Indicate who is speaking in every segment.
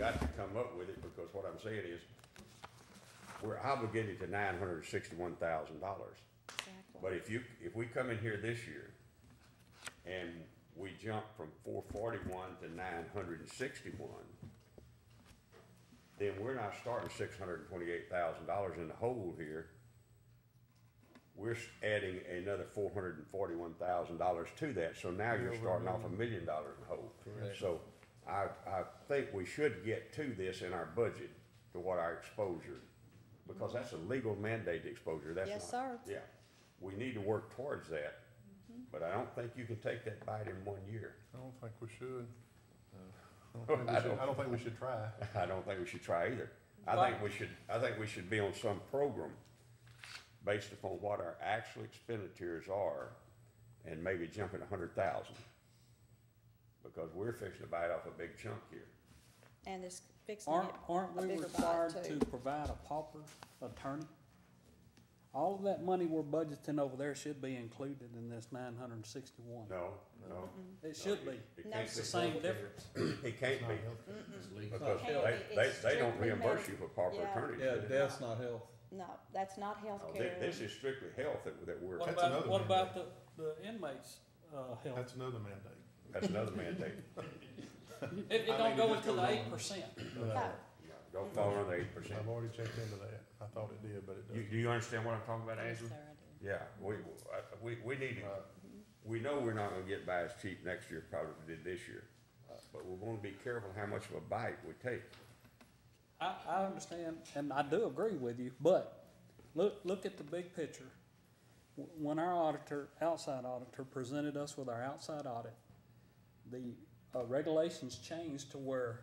Speaker 1: got to come up with it, because what I'm saying is, we're obligated to nine hundred and sixty-one thousand dollars. But if you, if we come in here this year, and we jump from four forty-one to nine hundred and sixty-one, then we're not starting six hundred and twenty-eight thousand dollars in the hole here. We're s- adding another four hundred and forty-one thousand dollars to that, so now you're starting off a million dollars in the hole. So I, I think we should get to this in our budget, to what our exposure, because that's a legal mandate exposure, that's not.
Speaker 2: Yes, sir.
Speaker 1: Yeah, we need to work towards that,
Speaker 2: Mm-hmm.
Speaker 1: but I don't think you can take that bite in one year.
Speaker 3: I don't think we should. Uh, I don't think we should, I don't think we should try.
Speaker 1: I don't think we should try either. I think we should, I think we should be on some program based upon what our actual expenditures are and maybe jumping a hundred thousand. Because we're fixing to bite off a big chunk here.
Speaker 2: And it's fixing
Speaker 4: Aren't,
Speaker 2: it
Speaker 4: aren't
Speaker 2: a
Speaker 4: we
Speaker 2: bigger
Speaker 4: required
Speaker 2: bite
Speaker 4: to
Speaker 2: too.
Speaker 4: provide a pauper attorney? All of that money we're budgeting over there should be included in this nine hundred and sixty-one.
Speaker 1: No, no.
Speaker 2: Mm-hmm.
Speaker 4: It should be.
Speaker 1: It
Speaker 2: No.
Speaker 1: can't
Speaker 4: It's the same difference.
Speaker 1: be, it can't
Speaker 3: Not
Speaker 1: be,
Speaker 3: healthy.
Speaker 1: because
Speaker 2: Can't
Speaker 1: they,
Speaker 2: be.
Speaker 1: they,
Speaker 2: It's
Speaker 1: they don't
Speaker 2: strictly
Speaker 1: reimburse
Speaker 2: medical.
Speaker 1: you for proper
Speaker 2: Yeah.
Speaker 1: attorney.
Speaker 5: Yeah, death's not health.
Speaker 2: No, that's not healthcare.
Speaker 1: This is strictly health that, that we're,
Speaker 4: What
Speaker 3: That's
Speaker 4: about,
Speaker 3: another
Speaker 4: what
Speaker 3: mandate.
Speaker 4: about the, the inmates, uh, health?
Speaker 3: That's another mandate.
Speaker 1: that's another mandate.
Speaker 4: It, it
Speaker 3: I
Speaker 4: don't
Speaker 3: mean,
Speaker 4: go
Speaker 3: it just
Speaker 4: into the
Speaker 3: goes
Speaker 4: eight
Speaker 3: on.
Speaker 4: percent.
Speaker 3: uh,
Speaker 2: No,
Speaker 1: Don't fall under eight percent.
Speaker 3: I've already checked into that. I thought it did, but it
Speaker 1: You,
Speaker 3: doesn't.
Speaker 1: do you understand what I'm talking about,
Speaker 2: yes, sir,
Speaker 1: Andrew?
Speaker 2: I do.
Speaker 1: Yeah, we, I- we, we need to,
Speaker 5: Uh,
Speaker 1: we know we're not gonna get by as cheap next year probably as we did this year.
Speaker 5: uh,
Speaker 1: But we wanna be careful how much of a bite we take.
Speaker 4: I, I understand, and I do agree with you, but look, look at the big picture. W- When our auditor, outside auditor, presented us with our outside audit, the uh, regulations changed to where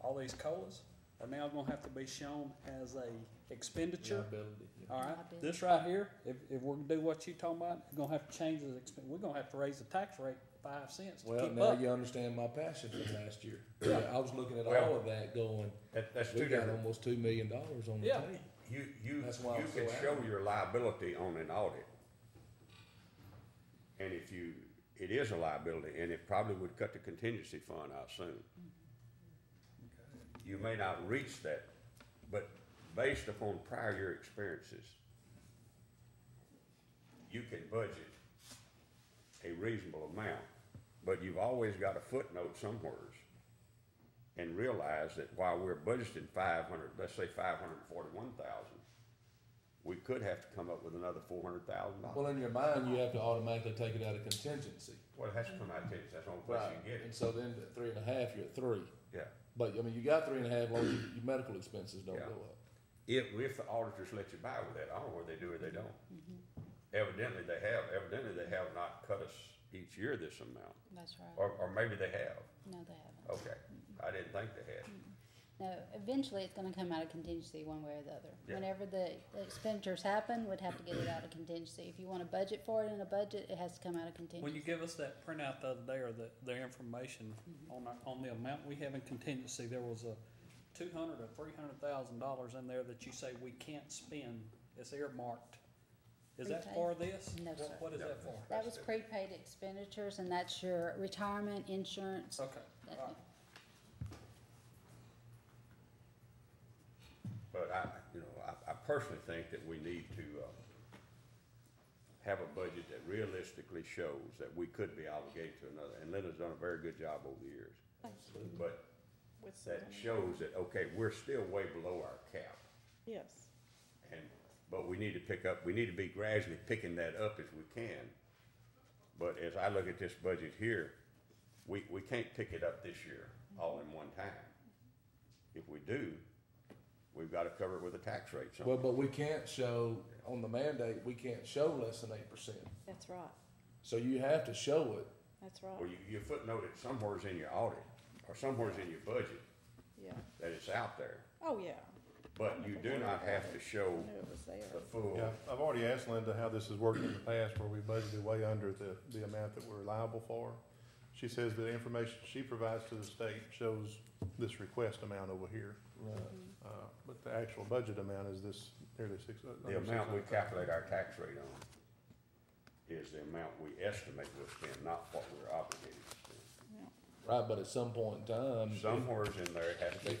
Speaker 4: all these colas are now gonna have to be shown as a expenditure.
Speaker 5: Liability, yeah.
Speaker 4: All right,
Speaker 2: Liability.
Speaker 4: this right here, if, if we're gonna do what you talking about, we're gonna have to change the expen, we're gonna have to raise the tax rate five cents to
Speaker 5: Well,
Speaker 4: keep
Speaker 5: now
Speaker 4: up.
Speaker 5: you understand my passion from last year.
Speaker 4: Yeah.
Speaker 5: I was looking at
Speaker 1: Well-
Speaker 5: all of that going,
Speaker 1: That, that's
Speaker 5: we
Speaker 1: two
Speaker 5: got
Speaker 1: different,
Speaker 5: almost two million dollars on the
Speaker 4: Yeah.
Speaker 5: table.
Speaker 1: you, you, you
Speaker 5: That's why I'm
Speaker 1: can
Speaker 5: so
Speaker 1: show
Speaker 5: adamant.
Speaker 1: your liability on an audit. And if you, it is a liability, and it probably would cut the contingency fund out soon. You may not reach that, but based upon prior year experiences, you can budget a reasonable amount, but you've always got a footnote somewheres. And realize that while we're budgeting five hundred, let's say five hundred and forty-one thousand, we could have to come up with another four hundred thousand
Speaker 5: Well,
Speaker 1: dollars.
Speaker 5: in your mind, you have to automatically take it out of contingency.
Speaker 1: Well, it has to come out of Texas, that's the only place you can
Speaker 5: And
Speaker 1: get
Speaker 5: so then at three and a half, you're at three.
Speaker 1: it,
Speaker 5: But, I mean, you got three and a half, well, your, your medical expenses don't go
Speaker 1: Yeah.
Speaker 5: up.
Speaker 1: yeah. If, if the auditors let you buy with that, I don't know whether they do or they don't.
Speaker 4: Mm-hmm.
Speaker 1: Evidently, they have, evidently, they have not cut us each year this amount,
Speaker 6: That's right.
Speaker 1: or, or maybe they have,
Speaker 6: No, they haven't.
Speaker 1: okay,
Speaker 4: Mm-hmm.
Speaker 1: I didn't think they had.
Speaker 6: No, eventually it's gonna come out of contingency one way or the other.
Speaker 1: Yeah.
Speaker 6: Whenever the the expenditures happen, we'd have to get it out of contingency. If you wanna budget for it in a budget, it has to come out of
Speaker 4: When you
Speaker 6: contingency.
Speaker 4: give us that printout the other day, or the, the information
Speaker 6: Mm-hmm.
Speaker 4: on our, on the amount we have in contingency, there was a two hundred or three hundred thousand dollars in there that you say we can't spend, it's earmarked. Is that for this?
Speaker 6: No,
Speaker 4: What-
Speaker 6: sir.
Speaker 4: What is
Speaker 1: No.
Speaker 4: that for?
Speaker 6: That was prepaid expenditures and that's your retirement, insurance.
Speaker 4: Okay,
Speaker 6: That-
Speaker 4: all right.
Speaker 1: But I, you know, I, I personally think that we need to, uh, have a budget that realistically shows that we could be obligated to another, and Linda's done a very good job over the years. But
Speaker 2: With some-
Speaker 1: that shows that, okay, we're still way below our cap,
Speaker 2: Yes.
Speaker 1: and, but we need to pick up, we need to be gradually picking that up as we can. But as I look at this budget here, we, we can't pick it up this year all in one time. If we do, we've gotta cover it with a tax rate somehow.
Speaker 5: Well, but we can't show, on the mandate, we can't show less than eight percent.
Speaker 2: That's right,
Speaker 5: So you have to show it.
Speaker 2: that's
Speaker 1: Well,
Speaker 2: right,
Speaker 1: you, you footnote it somewheres in your audit, or somewheres in your budget,
Speaker 2: yeah.
Speaker 1: that it's out there,
Speaker 2: Oh, yeah,
Speaker 1: but you do not have to show
Speaker 2: I knew it was there.
Speaker 1: the full,
Speaker 3: Yeah, I've already asked Linda how this has worked in the past where we budgeted way under the, the amount that we're liable for. She says the information she provides to the state shows this request amount over here.
Speaker 5: Right.
Speaker 3: Uh, but the actual budget amount is this nearly six. uh,
Speaker 1: the
Speaker 3: under
Speaker 1: amount we
Speaker 3: 600,000.
Speaker 1: calculate our tax rate on is the amount we estimate we'll spend, not what we're obligated to
Speaker 5: Right, but at some point in time,
Speaker 1: spend. Somewheres in there has to be